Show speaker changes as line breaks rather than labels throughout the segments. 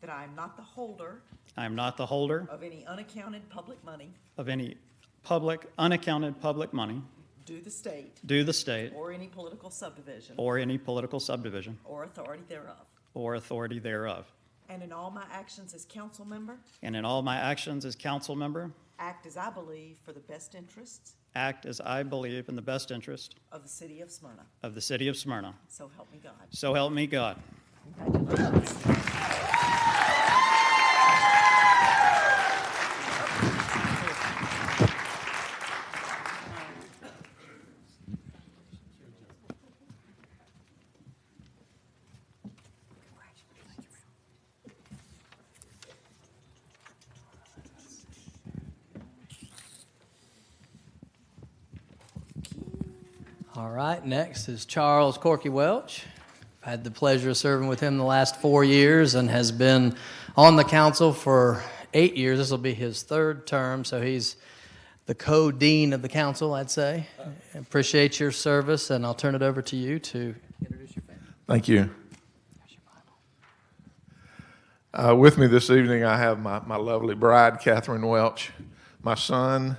that I am not the holder
I am not the holder
of any unaccounted public money
of any public, unaccounted public money
due the state
due the state
or any political subdivision
or any political subdivision
or authority thereof,
or authority thereof,
and in all my actions as council member,
and in all my actions as council member,
act as I believe for the best interests
act as I believe in the best interest
of the city of Smyrna.
of the city of Smyrna.
So help me God.
So help me God.
All right, next is Charles Corky Welch. I've had the pleasure of serving with him the last four years and has been on the council for eight years. This will be his third term, so he's the co dean of the council, I'd say. Appreciate your service, and I'll turn it over to you to introduce your family.
Thank you. Uh, with me this evening, I have my, my lovely bride, Catherine Welch, my son,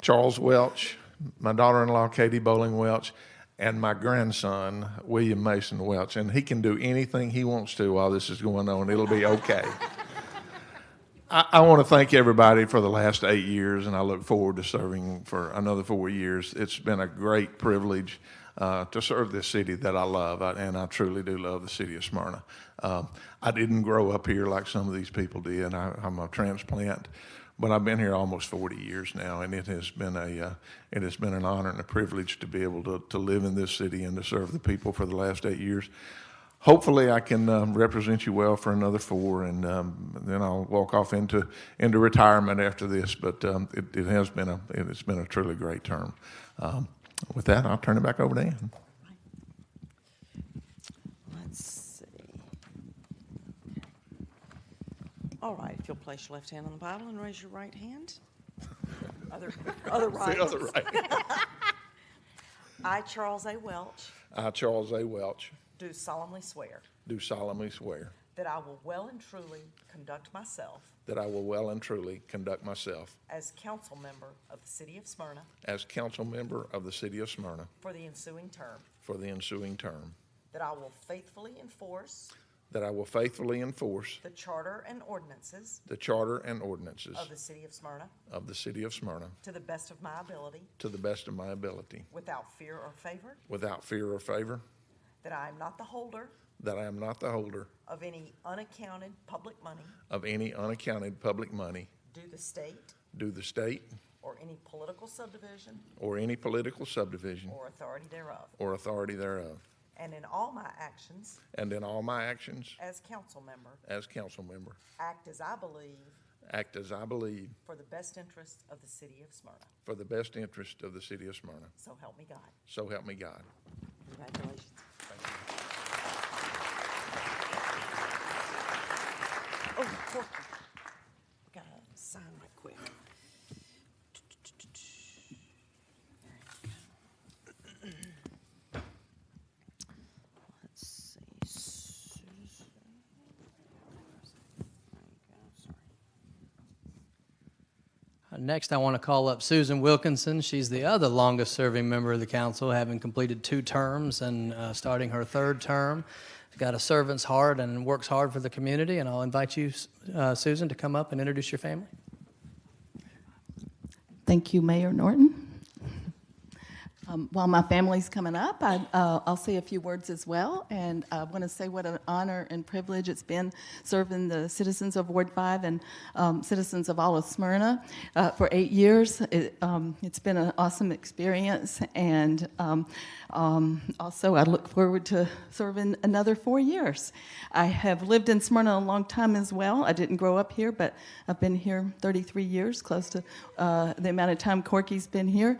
Charles Welch, my daughter in law, Katie Bowling Welch, and my grandson, William Mason Welch. And he can do anything he wants to while this is going on, it'll be okay. I, I want to thank everybody for the last eight years, and I look forward to serving for another four years. It's been a great privilege uh, to serve this city that I love, I- and I truly do love the city of Smyrna. Um, I didn't grow up here like some of these people did. I, I'm a transplant, but I've been here almost 40 years now, and it has been a uh, it has been an honor and a privilege to be able to, to live in this city and to serve the people for the last eight years hopefully I can um, represent you well for another four, and um, then I'll walk off into into retirement after this. But um, it, it has been a it, has been a truly great term. Um, with that, I'll turn it back over to Ann.
Let's see. All right, if you'll place your left hand on the Bible and raise your right hand. Other, other right. I, Charles A. Welch,
I, Charles A. Welch,
do solemnly swear
do solemnly swear
that I will well and truly conduct myself
that I will well and truly conduct myself
as council member of the city of Smyrna
as council member of the city of Smyrna
for the ensuing term,
for the ensuing term.
that I will faithfully enforce
That I will faithfully enforce
the charter and ordinances
the charter and ordinances
of the city of Smyrna
of the city of Smyrna
to the best of my ability,
to the best of my ability,
without fear or favor,
without fear or favor.
that I am not the holder
That I am not the holder
of any unaccounted public money
of any unaccounted public money
due the state
due the state
or any political subdivision
or any political subdivision
or authority thereof,
or authority thereof,
and in all my actions
and in all my actions
as council member,
as council member,
act as I believe
act as I believe
for the best interests of the city of Smyrna.
for the best interest of the city of Smyrna.
So help me God.
So help me God.
Congratulations. Oh, Corky. Gotta sign right quick. Let's see. Susan. There you go, sorry.
Next, I want to call up Susan Wilkinson. She's the other longest serving member of the council, having completed two terms and uh, starting her third term. She's got a servant's heart and works hard for the community, and I'll invite you, uh, Susan, to come up and introduce your family.
Thank you, Mayor Norton. Um, While my family's coming up, I, uh, I'll say a few words as well, and I want to say what an honor and privilege it's been serving the citizens of Ward 5 and um, citizens of all of Smyrna uh, for eight years. It, um, It's been an awesome experience, and um, um, also I look forward to serving another four years. I have lived in Smyrna a long time as well. I didn't grow up here, but I've been here 33 years, close to uh, the amount of time Corky's been here.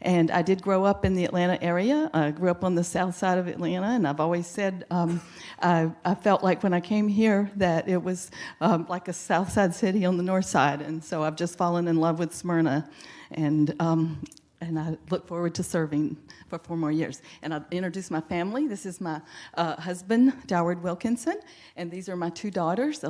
And I did grow up in the Atlanta area. I grew up on the south side of Atlanta, and I've always said um, I, I felt like when I came here that it was um, like a south side city on the north side. And so I've just fallen in love with Smyrna, and um, and I look forward to serving for four more years. And I'll introduce my family. This is my uh, husband, Doward Wilkinson, and these are my two daughters,